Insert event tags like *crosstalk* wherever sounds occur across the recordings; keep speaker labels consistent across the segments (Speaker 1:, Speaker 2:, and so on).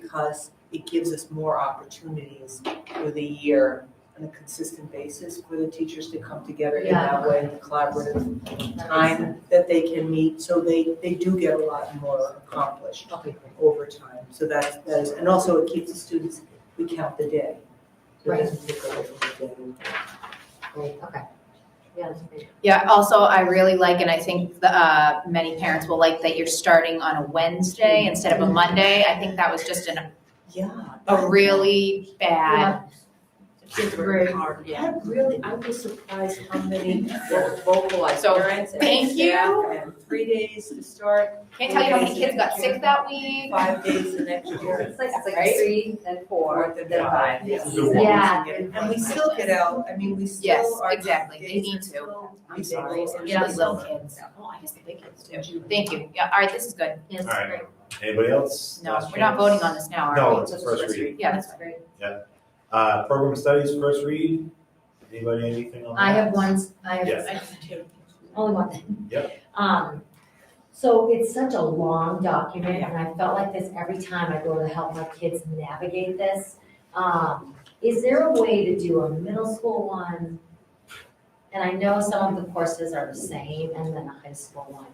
Speaker 1: because it gives us more opportunities through the year on a consistent basis for the teachers to come together in that way, collaborative time that they can meet, so they, they do get a lot more accomplished
Speaker 2: Okay,
Speaker 1: over time. So that's, that is, and also it keeps the students, we count the day. So it doesn't take away from the day.
Speaker 2: great, okay. Yeah, that's great.
Speaker 3: Yeah, also, I really like, and I think the, uh, many parents will like that you're starting on a Wednesday instead of a Monday. I think that was just an,
Speaker 1: Yeah.
Speaker 3: a really bad,
Speaker 2: Kids were very hard, yeah.
Speaker 1: I really, I was surprised how *laughs* many vo- vocalized
Speaker 3: So,
Speaker 1: parents and
Speaker 3: thank
Speaker 1: staff
Speaker 3: you.
Speaker 1: and three days to start,
Speaker 3: can't tell you how many kids got sick that week.
Speaker 1: five days the next year.
Speaker 2: It's like, it's like
Speaker 3: Right?
Speaker 2: three, then four,
Speaker 1: Fourth and
Speaker 2: then
Speaker 1: five.
Speaker 2: five.
Speaker 1: Yeah.
Speaker 2: Yeah.
Speaker 1: And we still get out, I mean, we
Speaker 3: Yes,
Speaker 1: still are.
Speaker 3: exactly. They
Speaker 1: days
Speaker 3: need
Speaker 1: are
Speaker 3: to.
Speaker 1: still-
Speaker 2: I'm sorry.
Speaker 1: Days are
Speaker 3: Yeah,
Speaker 1: still-
Speaker 3: little kids. Oh, I guess the big kids do. Thank you. Yeah, all right, this is good.
Speaker 2: Yes,
Speaker 4: All right.
Speaker 2: great.
Speaker 4: Anybody else?
Speaker 3: No,
Speaker 4: Last
Speaker 3: we're not
Speaker 4: chance.
Speaker 3: voting on this now, are we?
Speaker 4: No, it's a first read.
Speaker 3: Yeah, that's
Speaker 2: That's great.
Speaker 4: Uh, program studies, first read. Anybody, anything on that?
Speaker 2: I have one, I have,
Speaker 4: Yes.
Speaker 2: I have two, only one thing.
Speaker 4: Yep.
Speaker 2: Um, so it's such a long document, and I felt like this every time I go to help my kids navigate this. Um, is there a way to do a middle school one? And I know some of the courses are the same, and then a high school one.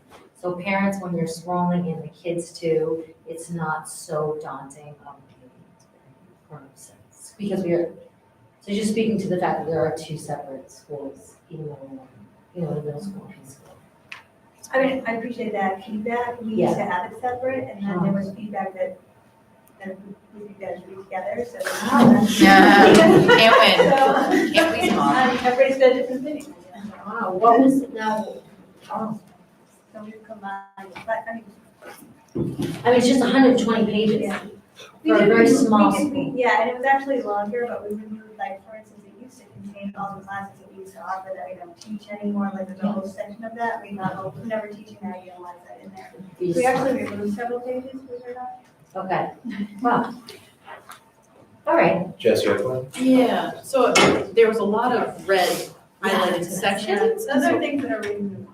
Speaker 2: So parents, when you're scrolling in the kids too, it's not so daunting of a grown sense, because we are so just speaking to the fact that there are two separate schools, even though, you know, the middle school and high school.
Speaker 5: I mean, I appreciate that feedback, we used to have it separate, and then there was feedback that, that we think that should be together, so.
Speaker 2: Ah.
Speaker 3: *laughs* Yeah,
Speaker 5: So,
Speaker 3: can't
Speaker 5: um,
Speaker 3: win. Can't please them all.
Speaker 5: *laughs* Everybody's got different Um, things.
Speaker 2: Wow, what was, now, oh,
Speaker 5: So we combine, but, I mean.
Speaker 2: I mean, it's just hundred and twenty pages.
Speaker 5: yeah.
Speaker 2: For a
Speaker 5: We did-
Speaker 2: very
Speaker 5: we
Speaker 2: small
Speaker 5: did- we-
Speaker 2: school.
Speaker 5: Yeah, and it was actually longer, but we removed, like, for instance, it used to contain all the classes that we used to offer that we don't teach anymore, like, there's a whole section of that, we not, we're never teaching that, you don't want that in there.
Speaker 2: You
Speaker 5: We
Speaker 2: just-
Speaker 5: actually removed several pages, was there not?
Speaker 2: Okay, wow. All right,
Speaker 4: Jess, you have one?
Speaker 6: Yeah, so there was a lot of red highlighted sections.
Speaker 5: Those are things that are removed,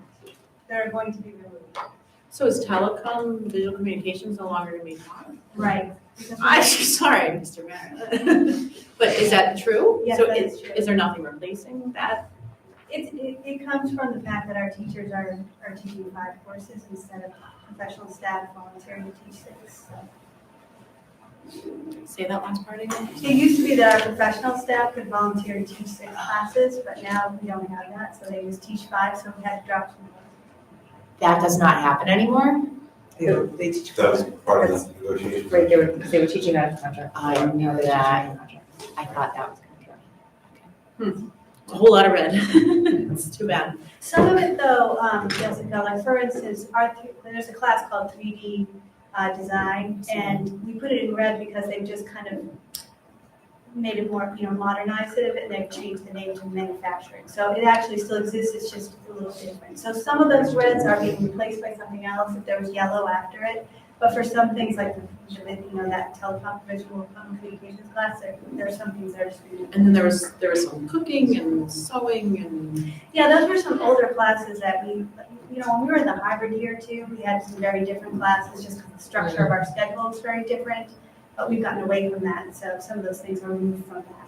Speaker 5: that are going to be removed.
Speaker 6: So is
Speaker 3: *laughs*
Speaker 6: telecom, visual communications no longer gonna be taught?
Speaker 5: Right. because-
Speaker 6: I'm *laughs* sorry, Mr. Mayor. But is that true?
Speaker 5: Yes,
Speaker 6: So
Speaker 5: that
Speaker 6: is,
Speaker 5: is true.
Speaker 6: is there nothing replacing that?
Speaker 5: It, it, it comes from the fact that our teachers are, are teaching five courses instead of professional staff volunteering to teach six.
Speaker 6: Say that last part again.
Speaker 5: It used to be that our professional staff could volunteer to teach six classes, but now we don't have that, so they just teach five, so we had to drop some.
Speaker 3: That does not happen anymore.
Speaker 1: They don't- They teach.
Speaker 4: That was part of the negotiation.
Speaker 2: right, they were, they were teaching out of contract.
Speaker 3: I knew that. I thought that was gonna be.
Speaker 6: Hmm. A whole lot of red. *laughs* It's too bad.
Speaker 5: Some of it though, um, Jessica, like for instance, our, th- there's a class called three D, uh, design, and we put it in red because they've just kind of made it more, you know, modernized it, and they've changed the name to manufacturing, so it actually still exists, it's just a little different. So some of those reds are being replaced by something else, if there was yellow after it, but for some things like, the you know, that telecom, visual communications class, there, there are some things that are just. being-
Speaker 6: And then there was, there was some cooking and sewing and,
Speaker 5: Yeah, those were some older classes that we, you know, when we were in the hybrid year too, we had some very different classes, just 'cause the structure of our schedule is very different. But we've gotten away from that, so some of those things are removed from that.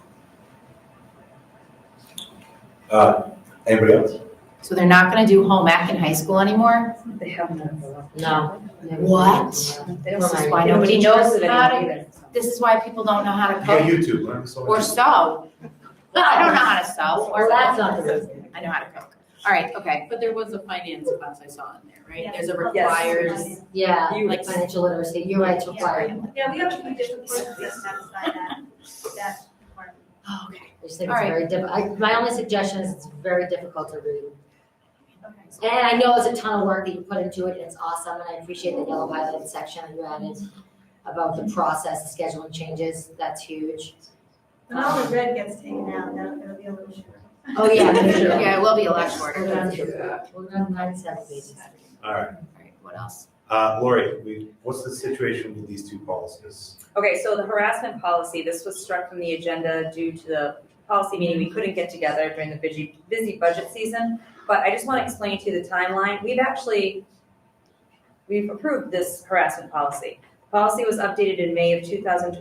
Speaker 4: Uh, anybody else?
Speaker 3: So they're not gonna do home ec in high school anymore?
Speaker 1: They have none.
Speaker 2: No. never.
Speaker 3: What? This is why nobody knows how to, this is why people don't know how to
Speaker 4: You got
Speaker 3: cook
Speaker 4: YouTube, learn so
Speaker 3: or
Speaker 4: much.
Speaker 3: sew. I don't know how to sew
Speaker 2: Well,
Speaker 3: or
Speaker 2: that's
Speaker 3: I
Speaker 2: not the reason.
Speaker 3: know how to cook. All right, okay.
Speaker 6: but there was a finance class I saw in there, right?
Speaker 5: Yeah.
Speaker 6: There's a
Speaker 5: Yes.
Speaker 6: requires.
Speaker 2: Yeah,
Speaker 6: You-
Speaker 2: like financial literacy, you're right, to require.
Speaker 5: Yeah, we have a few different courses that satisfy that, that requirement.
Speaker 6: Oh, okay.
Speaker 2: I just think
Speaker 3: All
Speaker 2: it's
Speaker 3: right.
Speaker 2: very diff, I, my only suggestion is it's very difficult to read.
Speaker 5: Okay.
Speaker 2: And I know it's a ton of work that you put into it, and it's awesome, and I appreciate the yellow highlighted section that you added about the process, the scheduling changes, that's huge.
Speaker 5: When all the red gets taken out, that'll, it'll be a little shorter.
Speaker 2: Oh, yeah,
Speaker 5: *laughs*
Speaker 2: for sure.
Speaker 3: Yeah, it will be a lot
Speaker 2: We're
Speaker 3: shorter. All
Speaker 2: gonna, we're gonna nine seven pages.
Speaker 4: All right,
Speaker 3: right, what else?
Speaker 4: uh, Lori, we, what's the situation with these two policies?
Speaker 7: Okay, so the harassment policy, this was struck from the agenda due to the policy meeting. We couldn't get together during the busy, busy budget season. But I just want to explain to you the timeline. We've actually, we've approved this harassment policy.
Speaker 3: Policy was updated in May of 2020